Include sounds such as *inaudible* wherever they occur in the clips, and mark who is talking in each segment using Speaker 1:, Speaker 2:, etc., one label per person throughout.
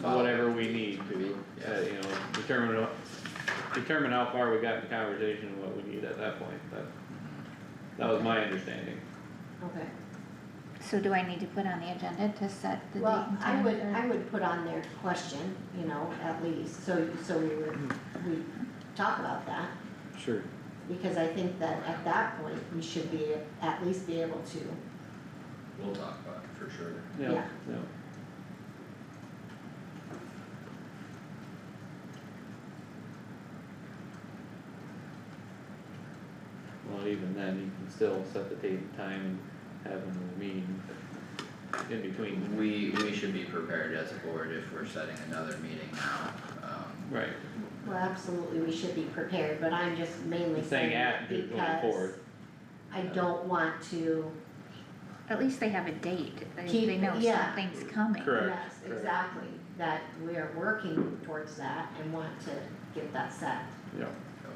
Speaker 1: follow.
Speaker 2: whatever we need to, uh, you know, determine, what- determine how far we got in conversation and what we need at that point, that, that was my understanding.
Speaker 1: Okay,
Speaker 3: So do I need to put on the agenda to set the date
Speaker 1: well,
Speaker 3: and
Speaker 1: I
Speaker 3: time
Speaker 1: would,
Speaker 3: for-
Speaker 1: I would put on their question, you know, at least, so, so we would,
Speaker 2: Mm.
Speaker 1: we talk about that.
Speaker 2: Sure.
Speaker 1: Because I think that at that point, we should be, at least be able to,
Speaker 4: We'll talk about it for sure.
Speaker 2: Yeah,
Speaker 1: Yeah.
Speaker 2: yeah. Well, even then, you can still set the date and time and have a meeting in between,
Speaker 4: We, we should be prepared as a board if we're setting another meeting now, um,
Speaker 2: right,
Speaker 1: well, absolutely, we should be prepared, but I'm just mainly
Speaker 2: I'm saying
Speaker 1: saying that
Speaker 2: at,
Speaker 1: because
Speaker 2: just going forward,
Speaker 1: I don't want to,
Speaker 3: At least they have a date, they,
Speaker 1: Keep-
Speaker 3: they know
Speaker 1: yeah.
Speaker 3: something's coming.
Speaker 2: Correct.
Speaker 1: yes,
Speaker 2: correct.
Speaker 1: exactly, that we are working towards that and want to get that set.
Speaker 2: yeah.
Speaker 4: so.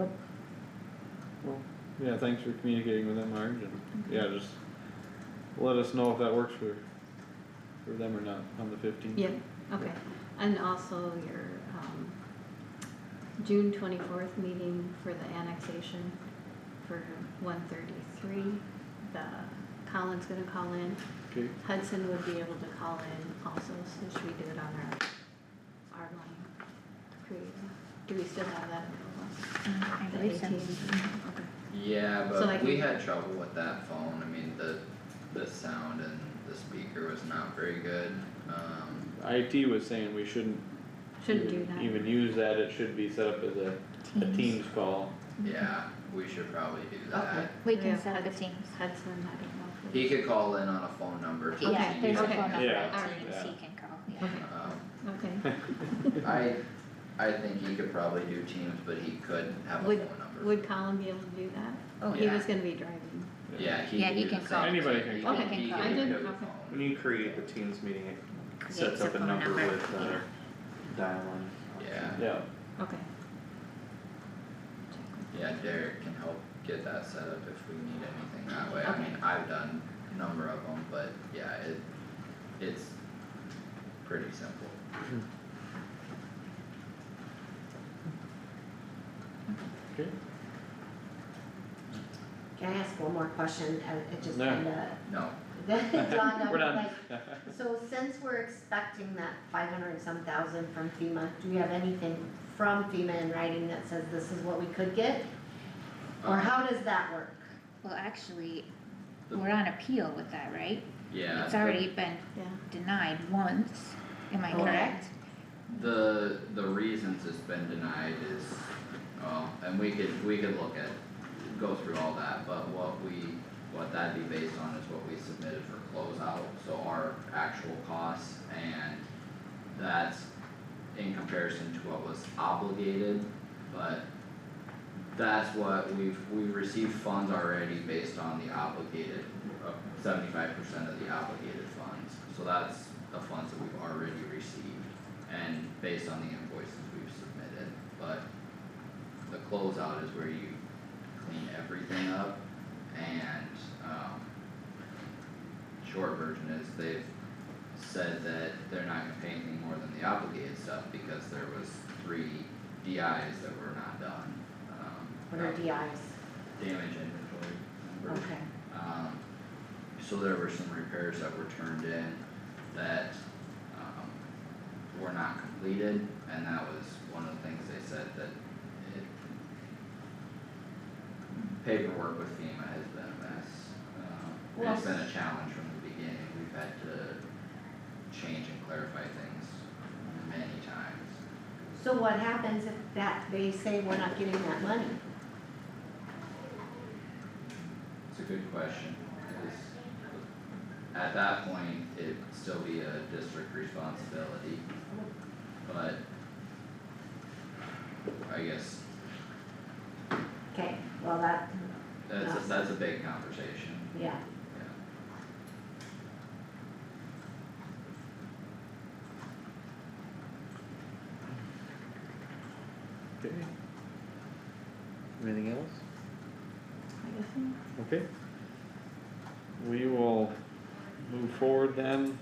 Speaker 2: Yep. Well, yeah, thanks for communicating with them, Marge, and, yeah, just let us know if that works for, for them or not on the fifteenth.
Speaker 5: Yep, okay, and also your, um, June twenty-fourth meeting for the annexation for one thirty-three. The, Colin's gonna call in,
Speaker 2: Okay,
Speaker 5: Hudson would be able to call in also, so should we do it on our, our line? Create- Do we still have that available?
Speaker 3: Mm, I
Speaker 5: The
Speaker 3: believe so. Mm-hmm.
Speaker 5: 18? Okay.
Speaker 4: Yeah,
Speaker 5: So like-
Speaker 4: but we had trouble with that phone, I mean, the, the sound and the speaker was not very good, um,
Speaker 2: IT was saying we shouldn't
Speaker 5: Shouldn't do
Speaker 2: even-
Speaker 5: that.
Speaker 2: Even use that, it should be set up as a, a Teams call,
Speaker 4: yeah, we should probably do that.
Speaker 1: Okay.
Speaker 3: We
Speaker 5: Yeah.
Speaker 3: can set up a Teams.
Speaker 5: Hudson, I don't know if we.
Speaker 4: He could call in on a phone number. to
Speaker 3: Yeah,
Speaker 4: see
Speaker 3: there's a
Speaker 4: something
Speaker 3: phone number
Speaker 2: Yeah.
Speaker 3: at
Speaker 5: Alright.
Speaker 3: Teams
Speaker 2: Yeah.
Speaker 3: he can call, yeah.
Speaker 5: Okay,
Speaker 4: Um,
Speaker 5: okay,
Speaker 4: I, I think he could probably do Teams, but he could have a
Speaker 5: Would-
Speaker 4: phone number.
Speaker 5: would Colin be able to do that?
Speaker 3: Oh,
Speaker 5: He
Speaker 4: Yeah.
Speaker 5: was gonna be driving.
Speaker 4: Yeah, he
Speaker 3: Yeah,
Speaker 4: could
Speaker 3: he
Speaker 4: do the
Speaker 3: can
Speaker 4: same
Speaker 3: call.
Speaker 2: Anybody
Speaker 4: thing.
Speaker 2: can
Speaker 4: He
Speaker 2: call.
Speaker 5: Okay,
Speaker 4: he
Speaker 5: I
Speaker 4: can
Speaker 5: didn't-
Speaker 4: do the
Speaker 5: okay.
Speaker 4: phone.
Speaker 6: When you create the Teams meeting, it
Speaker 3: Creates
Speaker 6: sets
Speaker 3: a
Speaker 6: up a
Speaker 3: phone
Speaker 6: number
Speaker 3: number.
Speaker 6: with uh dial in.
Speaker 4: Yeah.
Speaker 2: yeah,
Speaker 5: Okay.
Speaker 4: Yeah, Derek can help get that set up if we need anything that way, I mean, I've done a number of them, but yeah, it, it's pretty simple.
Speaker 2: okay,
Speaker 1: Can I ask one more question, I, it just
Speaker 2: No.
Speaker 1: kinda,
Speaker 4: No,
Speaker 1: *laughs*
Speaker 2: *laughs*
Speaker 1: that dawned
Speaker 2: we're
Speaker 1: on me,
Speaker 2: done. *laughs*
Speaker 1: like, So since we're expecting that five hundred and some thousand from FEMA, do we have anything from FEMA in writing that says this is what we could get?
Speaker 4: Uh,
Speaker 1: Or how does that work?
Speaker 3: Well, actually,
Speaker 4: The-
Speaker 3: we're on appeal with that, right?
Speaker 4: yeah,
Speaker 3: It's
Speaker 4: the,
Speaker 3: already been
Speaker 5: Yeah,
Speaker 3: denied once, am I correct?
Speaker 1: Correct.
Speaker 4: the, the reasons it's been denied is, well, and we could, we could look at, go through all that, but what we, what that'd be based on is what we submitted for closeout, so our actual costs and that's in comparison to what was obligated, but that's what we've, we've received funds already based on the obligated, uh, seventy-five percent of the obligated funds. So that's the funds that we've already received and based on the invoices we've submitted, but the closeout is where you clean everything up and, um, short version is they've said that they're not gonna pay anything more than the obligated stuff because there was three DIs that were not done, um.
Speaker 1: What are
Speaker 4: that-
Speaker 1: DIs?
Speaker 4: damage inventory numbers.
Speaker 1: Okay,
Speaker 4: Um, so there were some repairs that were turned in that, um, were not completed, and that was one of the things they said that it. Paperwork with FEMA has been a mess, um,
Speaker 1: Well,
Speaker 4: it's been a challenge from the beginning, we've had to change and clarify things many times.
Speaker 1: so what happens if that, they say we're not getting that money?
Speaker 4: It's a good question, 'cause at that point, it'd still be a district responsibility, but I guess
Speaker 1: Okay, well, that,
Speaker 4: that's, a- that's a big conversation,
Speaker 1: yeah,
Speaker 4: yeah.
Speaker 2: Okay. Anything else?
Speaker 5: I guess.
Speaker 2: Okay. We will move forward then